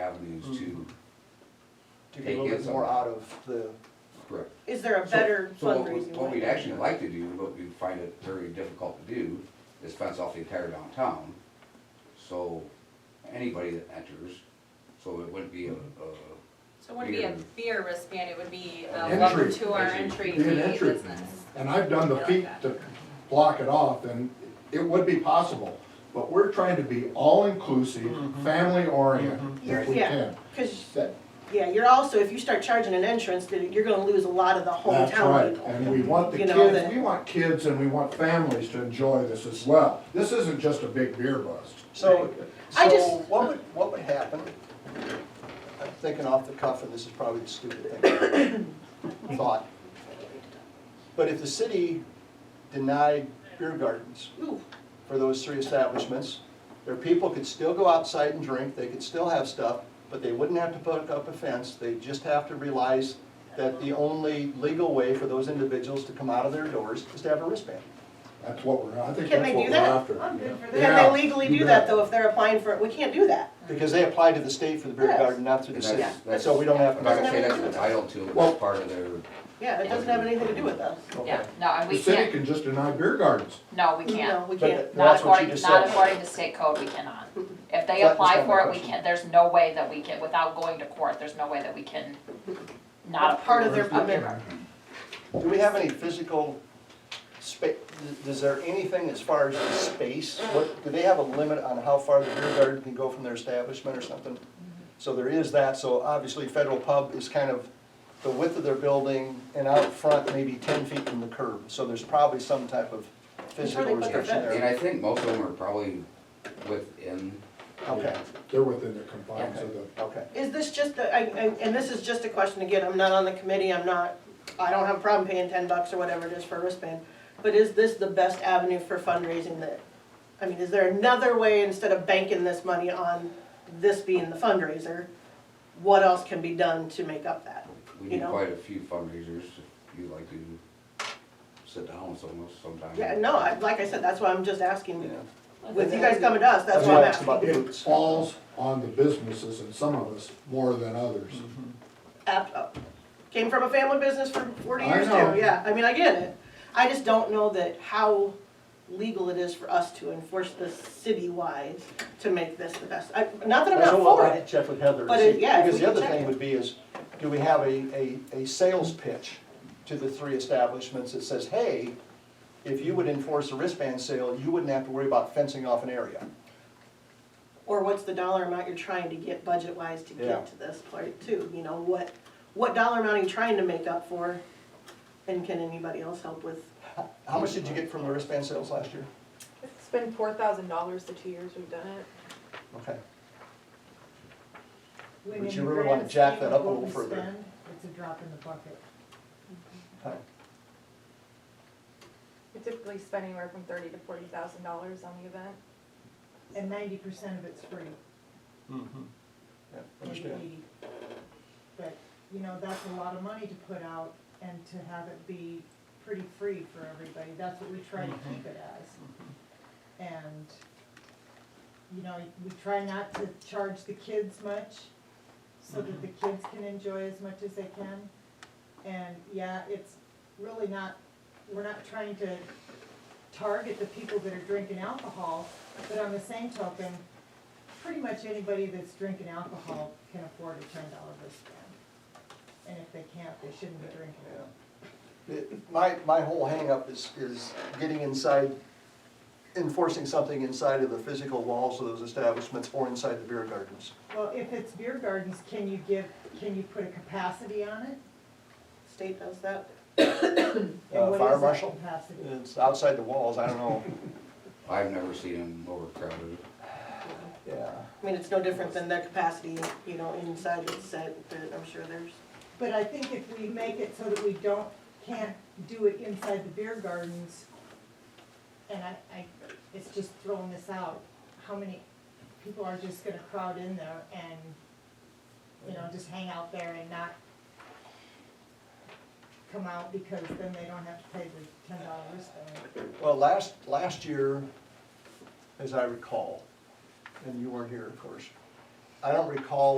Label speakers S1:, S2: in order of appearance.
S1: avenues to,
S2: to get a little bit more out of the,
S1: correct.
S3: Is there a
S1: So-
S3: better
S1: so what we-
S3: fundraising
S1: What we'd
S3: way?
S1: actually like to do, but we find it very difficult to do, is fence off the entire downtown, so anybody that enters, so it wouldn't be a, a,
S4: So it wouldn't be a
S1: Beer.
S4: beer wristband, it would be a
S1: Entry,
S4: welcome to our
S1: entry.
S4: entry
S5: Be
S4: to
S5: an
S4: the
S5: entry.
S4: business.
S5: And I've done the feat to block it off, and it would be possible, but we're trying to be all-inclusive, family-oriented, if we
S3: Yeah.
S5: can.
S3: Cause,
S5: Mm-hmm. That-
S3: yeah, you're also, if you start charging an entrance, then you're gonna lose a lot of the
S5: That's
S3: hometown
S5: right,
S3: people.
S5: and we want the
S3: You know,
S5: kids,
S3: that-
S5: we want kids and we want families to enjoy this as well. This isn't just a big beer bust.
S2: so,
S3: I
S2: so
S3: just-
S2: what would, what would happen? I'm thinking off the cuff, and this is probably the stupid thing, thought. But if the city denied beer gardens
S3: Ooh,
S2: for those three establishments, their people could still go outside and drink, they could still have stuff, but they wouldn't have to put up a fence, they just have to realize that the only legal way for those individuals to come out of their doors is to have a wristband.
S5: That's what we're, I think
S3: Can
S5: that's
S3: they
S5: what
S3: do
S5: we're
S3: that?
S5: after.
S3: I'm good for that.
S5: Yeah,
S3: Can they legally
S5: you
S3: do that
S5: bet.
S3: though if they're applying for, it? we can't do that.
S2: Because they apply to the state for the beer
S3: Yes.
S2: garden, not to the
S1: and
S2: city.
S1: that's, that's.
S2: So we don't have
S1: I'm
S2: to.
S1: not gonna say that's entitled to,
S5: Well-
S1: that's part of their,
S3: Yeah, it doesn't have anything to do with us.
S4: Yeah, no, and
S5: The
S4: we
S5: city
S4: can't,
S5: can just deny beer gardens.
S4: no, we
S3: No,
S4: can't.
S3: we
S2: But
S3: can't.
S2: that-
S4: Not
S2: That's what you
S4: according,
S2: just
S4: not
S2: said.
S4: according to state code, we cannot. If
S2: That
S4: they
S2: was
S4: apply
S2: not my
S4: for it, we
S2: question.
S4: can't, there's no way that we can, without going to court, there's no way that we can not
S3: That's part of
S4: approve.
S3: their permit.
S2: Do we have any physical spa, is there anything as far as the space? What, do they have a limit on how far the beer garden can go from their establishment or something? So there is that, so obviously Federal Pub is kind of the width of their building and out front maybe ten feet from the curb. So there's probably some type of
S3: Before
S2: physical
S3: they put their
S2: restriction
S1: and
S2: there.
S1: I think most of them are probably within,
S2: Okay,
S5: They're within the confines of the,
S2: okay.
S3: Is this just, a- I- I- and this is just a question again, I'm not on the committee, I'm not, I don't have a problem paying ten bucks or whatever it is for a wristband, but is this the best avenue for fundraising that, I mean, is there another way instead of banking this money on this being the fundraiser? What else can be done to make up that?
S1: we
S3: You
S1: do
S3: know.
S1: quite a few fundraisers, if you like to sit down with someone sometime.
S3: Yeah, no, I- like I said, that's why I'm just asking,
S2: Yeah.
S3: with you guys coming to us, that's why
S2: why
S3: I'm
S2: I asked about
S3: asking.
S2: the
S5: it
S2: boots.
S5: falls on the businesses and some of us more than others.
S3: Mm-hmm. App- uh, Came from a family business for forty
S5: I
S3: years too,
S5: know.
S3: yeah, I mean, I get it. I just don't know that how legal it is for us to enforce this city-wise to make this the best. I, not that I'm
S2: That's
S3: not
S2: what we'll
S3: for
S2: have to
S3: it,
S2: check with Heather. and
S3: But it-
S2: see.
S3: yeah, if
S2: Because
S3: we
S2: the
S3: can
S2: other
S3: check
S2: thing
S3: it.
S2: would be is, do we have a, a, a sales pitch to the three establishments that says, hey, if you would enforce a wristband sale, you wouldn't have to worry about fencing off an area.
S3: or what's the dollar amount you're trying to get budget-wise to
S2: Yeah.
S3: get to this part too, you know, what, what dollar amount are you trying to make up for? And can anybody else help with,
S2: How much did you get from the wristband sales last year?
S6: It's been four thousand dollars the two years we've done it.
S2: Okay.
S7: But
S2: you really wanna jack that up a little further.
S7: It's a drop in the bucket.
S2: Okay.
S6: We typically spend anywhere from thirty to forty thousand dollars on the event.
S7: And ninety percent of it's free.
S2: Yeah,
S7: maybe
S2: Understand.
S7: 80. But, you know, that's a lot of money to put out and to have it be pretty free for everybody. That's what we try to
S2: Mm-hmm.
S7: keep it as. And, you know, we try not to charge the kids much so
S2: Mm-hmm.
S7: that the kids can enjoy as much as they can. And, yeah, it's really not, we're not trying to target the people that are drinking alcohol, but on the same token, pretty much anybody that's drinking alcohol can afford a ten dollar wristband. And if they can't, they shouldn't be drinking it.
S2: Yeah. It- My, my whole hangup is, is getting inside, enforcing something inside of the physical walls of those establishments or inside the beer gardens.
S7: Well, if it's beer gardens, can you give, can you put a capacity on it?
S3: state does that?
S7: And
S2: Uh,
S7: what
S2: fire
S7: is that
S2: marshal?
S7: capacity?
S2: It's outside the walls, I don't know.
S1: I've never seen them overcrowded.
S2: Yeah.
S3: I mean, it's no different than their capacity, you know, inside it's set, but I'm sure there's.
S7: But I think if we make it so that we don't, can't do it inside the beer gardens, and I, I, it's just throwing this out, how many people are just gonna crowd in there and, you know, just hang out there and not come out because then they don't have to pay the ten dollar wristband.
S2: Well, last, last year, as I recall, and you weren't here, of course, I don't recall